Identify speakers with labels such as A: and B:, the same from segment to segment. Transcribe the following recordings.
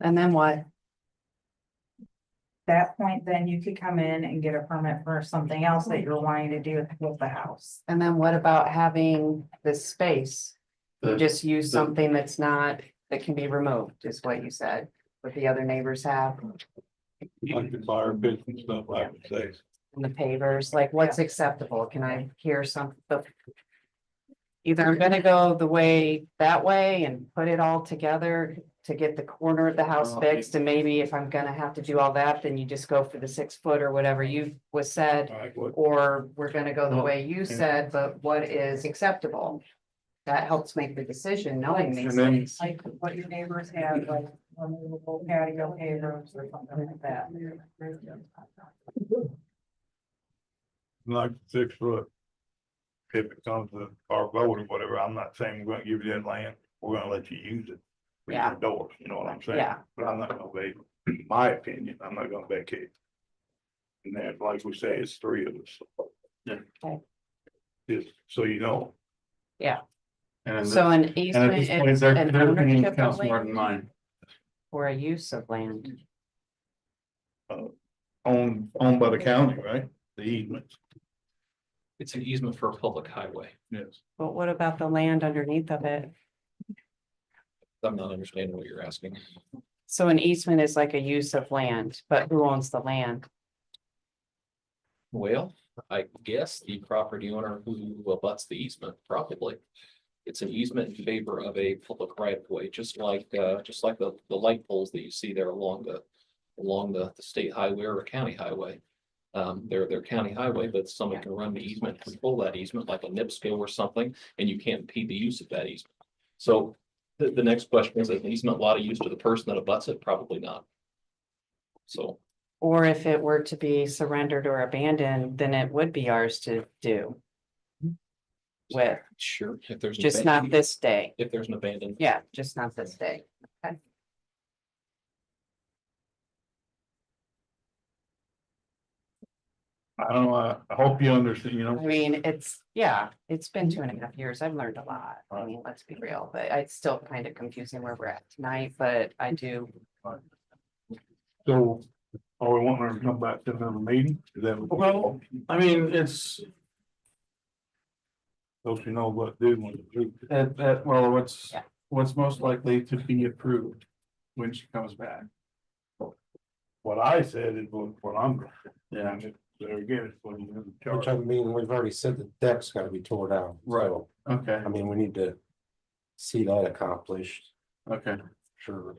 A: And then what?
B: that point, then you could come in and get a permit for something else that you're wanting to do with the house.
A: And then what about having this space?
C: The-
A: Just use
C: the-
A: something that's not, that can be removed, is what you said, what the other neighbors have
D: Like the fire pits and stuff, I would say.
A: and the pavers, like what's acceptable? Can I hear some? the- Either I'm gonna go the way that way and put it all together to get the corner of the house
C: Well,
A: fixed, and maybe if I'm gonna have to do all that, then you just go for the six foot or whatever you was said.
D: Like what,
A: Or we're gonna go the
C: Well,
A: way you said, but what is acceptable? That helps make the decision, knowing these
C: And then-
A: things.
B: Like what your neighbors have, like removable patio pavers or something like that.
D: like six foot. If it comes to our vote or whatever, I'm not saying we're gonna give you that land, we're gonna let you use it. with your
A: Yeah.
D: Doors, you know what I'm saying?
A: Yeah.
D: But I'm not gonna vacate, my opinion, I'm not gonna vacate. And then, like we say, it's three of us.
C: Yeah.
A: Okay.
D: Just so you know,
C: And
A: So an
C: and at this
A: easement,
C: point,
A: is
C: their
A: an
C: their opinion
A: ownership of
C: counts more
A: land
C: than mine.
A: or a use of land.
D: owned, owned by the county, right? The easement.
E: It's an easement for a public highway.
D: Yes.
A: But what about the land underneath of it?
E: I'm not understanding what you're asking.
A: So an easement is like a use of land, but who owns the land?
E: Well, I guess the property owner who abuts the easement, probably. It's an easement in favor of a public right of way, just like, uh, just like the, the light poles that you see there along the, along the, the state highway or a county highway. Um, they're, they're county highway, but someone can run the easement, control that easement like a NIPSCO or something, and you can't impede the use of that easement. So the, the next question is, is an easement a lot of use to the person that abuts it? Probably not. So.
A: Or if it were to be surrendered or abandoned, then it would be ours to do. With,
E: Sure. If there's. an
A: just
E: abandoned-
A: not this day.
E: If there's an abandoned.
A: Yeah, just not this day.
D: I don't know, I, I hope you understand, you
A: I
D: know,
A: mean, it's, yeah, it's been two and a half years. I've learned a lot. I mean, let's be real, but it's still kind of confusing where we're at tonight, but I do.
D: so, are we wanting her to come back to another meeting? Is that what-
C: Well, I mean, it's,
D: So you know what, do want to do.
C: that, that, well, what's,
A: Yeah.
C: what's most likely to be approved when she comes back.
D: What I said is what, what I'm, gonna do.
C: Yeah.
D: and it- there again, it's what you're in
F: Which
D: charge.
F: I mean, we've already said the deck's gotta be tore down.
C: Right.
F: So,
C: Okay,
F: I mean, we need to see that accomplished,
C: okay.
F: sure.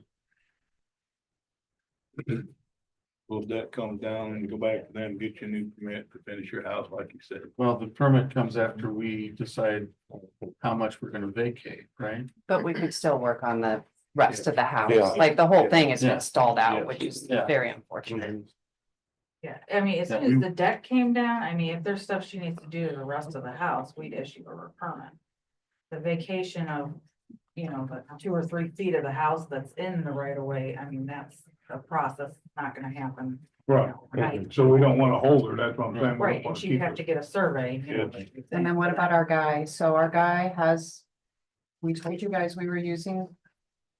D: Well, if that comes down and you go back to them, get your new permit to finish your house like you said.
C: Well, the permit comes after we decide how much we're gonna vacate, right?
A: But we could still work on the rest of the
F: Yeah.
A: house. Like the whole thing has
C: Yeah.
A: been stalled
D: Yeah.
A: out, which is
C: Yeah. Mm-hmm.
A: very unfortunate.
B: Yeah, I mean, as soon as the deck came down, I mean, if there's stuff she needs to do to the rest of the house, we'd issue her a permit. The vacation of, you know, the two or three feet of the house that's in the right of way, I mean, that's a process, it's not gonna happen. you
D: Right,
B: know, Right,
D: so we don't wanna hold her, that's what I'm saying. We don't
B: right, and
D: wanna
B: she'd
D: keep
B: have
D: her.
B: to get a survey. you know,
D: Yeah.
B: like you
A: And then
B: said,
A: what
B: for
A: about our guy? So our guy has. We told you guys we were using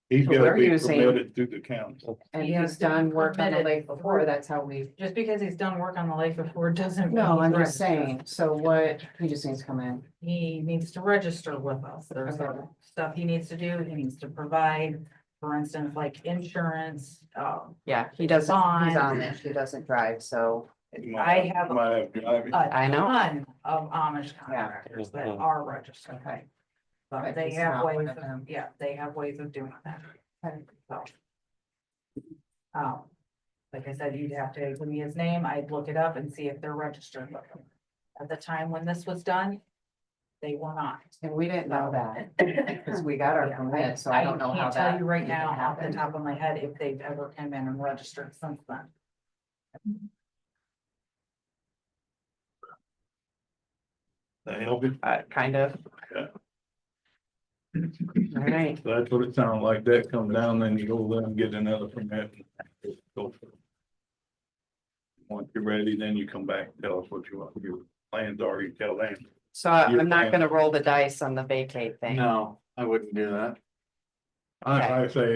D: He's gotta
A: We're
D: be
A: using-
D: permitted through the county.
A: and
B: He
A: he's
B: has to be
A: done work on the
B: permitted
A: lake before.
B: before.
A: That's how we.
B: that. Just because he's done work on the lake before doesn't. mean
A: No,
B: he's
A: I'm just
B: registered.
A: saying. So what, he just needs to come in.
B: He needs to register with us. There's
A: Okay.
B: other stuff he needs to do. He needs to provide, for instance, like insurance. Um,
A: Yeah, he doesn't, he's
B: Fine.
A: on it. He doesn't drive, so
B: I have a Uh,
D: Might have driving.
A: I know.
B: ton of Amish contractors that
F: Mhm.
B: are registered.
A: Okay.
B: But
A: But
B: they
A: he's
B: have
A: not one
B: ways
A: of
B: of,
A: them.
B: yeah, they have ways of doing that.
A: Okay.
B: So. Um, like I said, you'd have to give me his name. I'd look it up and see if they're registered. with him. At the time when this was done, they were not.
A: And we didn't know that because we got our
B: Yeah,
A: permit, so I don't know how
B: can't
A: that.
B: Tell you right
A: even
B: now off the
A: happened.
B: top of my head if they've ever come in and registered since then.
D: That help you?
A: Uh, kind of.
D: Yeah.
A: All right,
D: That's what it sounded like, that come down, then you go there and get another permit. Go for it. Once you're ready, then you come back, and tell us what you want, your plans are, you tell them.
A: so I-
D: You're
A: I'm not
D: fine.
A: gonna roll the dice on the vacate thing.
C: No, I wouldn't do that.
D: I, I say